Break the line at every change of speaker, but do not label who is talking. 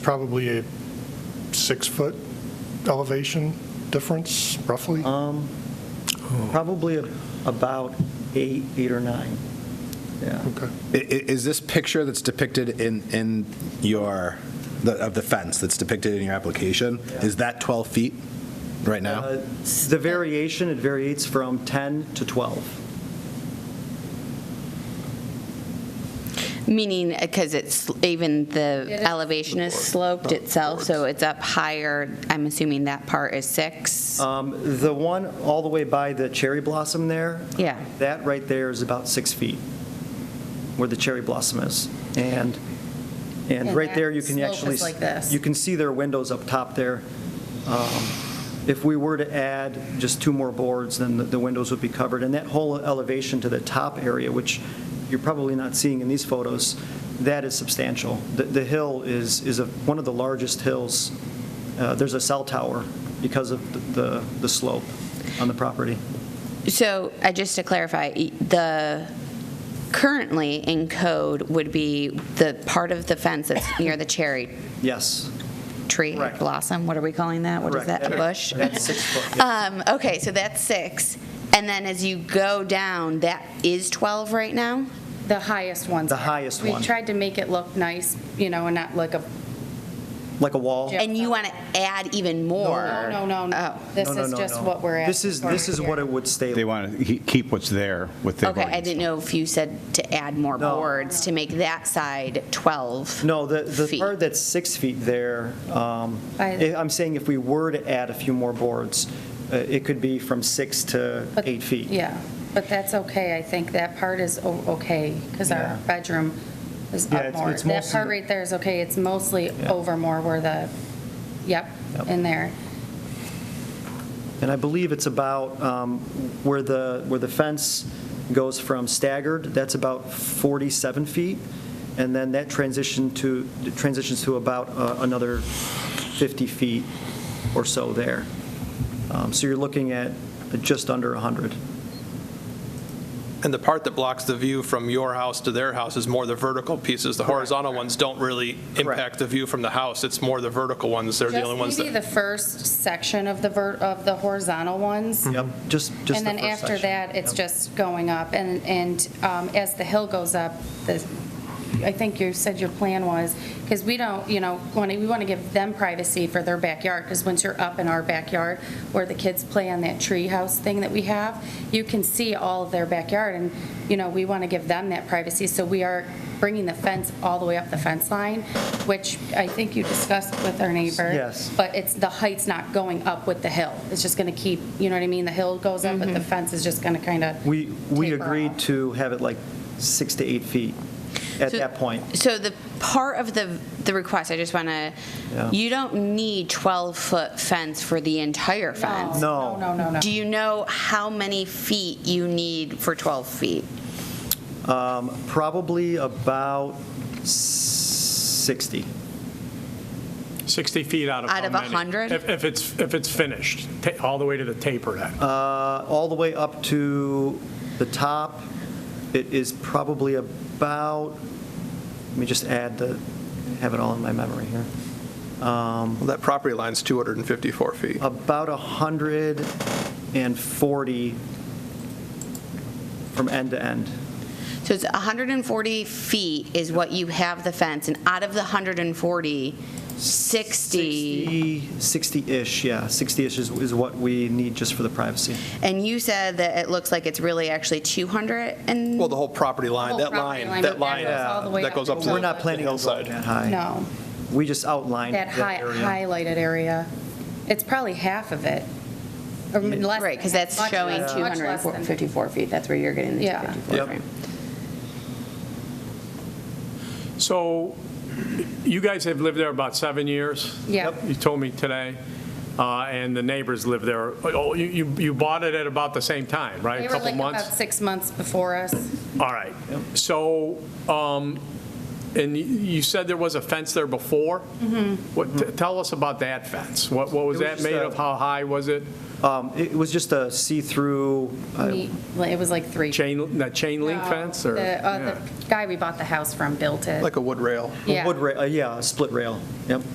probably a six-foot elevation difference, roughly?
Um, Probably a- about eight, eight or nine. Yeah.
Okay.
I- i- Is this picture that's depicted in, in your, the- of the fence that's depicted in your application,
Yeah.
is that 12 feet right now?
Uh, The variation, it varies from 10 to 12.
Meaning, because it's, even the elevation is sloped itself, so it's up higher, I'm assuming that part is six?
Uh-huh.
Um, The one all the way by the cherry blossom there,
Yeah,
that right there is about six feet, where the cherry blossom is. And, and
And
right there, you
that
can
slope
actually.
is like this.
You can see their windows up top there. Um, If we were to add just two more boards, then the- the windows would be covered. And that whole elevation to the top area, which you're probably not seeing in these photos, that is substantial. The, the hill is, is a- one of the largest hills. Uh, There's a cell tower because of the- the, the slope on the property.
so, uh, just to clarify, e- the, currently in code would be the part of the fence that's near the cherry
Yes.
tree
Correct.
blossom, what are we calling that? What is
Correct.
that, a bush?
That's six foot, yeah.
Um, okay, so that's six, and then as you go down, that is 12 right now?
The highest ones.
The
are.
highest one.
We tried to make it look nice, you know, and not like a,
Like a wall?
Yeah.
And you want to add even more?
no, no, no, no.
Oh.
This
No, no,
is
no,
just
no.
what we're at.
This is, this is what it would stay.
They want to keep what's there with the.
Okay, I didn't know if you said to add more
No.
boards to make that side 12.
No, the, the
Feet.
part that's six feet there, um,
By
eh,
the-
I'm saying if we were to add a few more boards, uh, it could be from six to
But-
eight feet.
Yeah, but that's okay. I think that part is o- okay, because
Yeah.
our bedroom is
Yeah,
up
it's-
more.
it's
That
mostly
part
the-
right there is okay. It's mostly
Yeah.
over more where the, yep,
Yep.
in there.
And I believe it's about um, where the, where the fence goes from staggered, that's about 47 feet, and then that transition to, transitions to about uh, another 50 feet or so there. Um, So you're looking at just under 100.
And the part that blocks the view from your house to their house is more the vertical pieces. The horizontal ones don't really impact the view from the house. It's more the vertical ones. They're the only ones
Just maybe the
that.
first section of the, ver- of the horizontal ones.
Yep, just, just the
And then
first
after
section.
that, it's
Yep.
just going up, and, and um, as the hill goes up, the, I think you said your plan was, because we don't, you know, want to, we want to give them privacy for their backyard, because once you're up in our backyard, where the kids play on that tree house thing that we have, you can see all of their backyard, and, you know, we want to give them that privacy, so we are bringing the fence all the way up the fence line, which I think you discussed with our neighbor.
Yes.
But it's, the height's not going up with the hill. It's just going to keep, you know what I mean? The hill goes up,
Mm-hmm.
but the fence is just going to kind of.
We, we
taper
agreed
off.
to have it like six to eight feet at
So-
that point.
So the part of the, the request, I just want to,
Yeah.
you don't need 12-foot fence for the entire fence.
No.
Oh, No, no, no,
Do
no.
you know how many feet you need for 12 feet?
Um, Probably about 60.
60 feet out of
Out
how
of
many?
100?
If if it's, if it's finished, ta- all the way to the taper then.
Uh, All the way up to the top, it is probably about, let me just add the, have it all in my memory here, Um,
Well, That property line's 254 feet.
about 140 from end to end.
So it's 140 feet is what you have the fence, and out of the 140, 60,
60-ish, yeah, 60-ish is is what we need just for the privacy.
and you said that it looks like it's really actually 200 and?
Well, the whole property line,
Whole
that
property
line,
line, but that
that line,
goes all the way
that
up
goes
to
up
the
to.
We're not
the
planning on going
hillside.
that high.
No.
We just outlined that
That high,
area.
highlighted area, it's probably half of it, or m- less.
Right, because
than
that's
half, much
showing
less, much less than-
254 feet, that's where you're getting the
Yeah.
254
Yep.
from.
So you guys have lived there about seven years?
Yeah. Yep.
You told me today, uh, and the neighbors live there. Oh, you- You you bought it at about the same time, right?
They
A
were
couple
like about
months?
six months before us.
All right. So, um, and you- you said there was a fence there before?
Mm-hmm.
What? t- Tell us about that fence. What what was
It was
that
just
made
a-
of? How high was it?
Um, It was just a see-through, uh,
Me- It was like three.
Chain, that chain link fence, or?
The, uh,
Yeah.
the guy we bought the house from built it.
Like a wood rail.
Yeah.
wood rail, uh, yeah, a split rail, yep.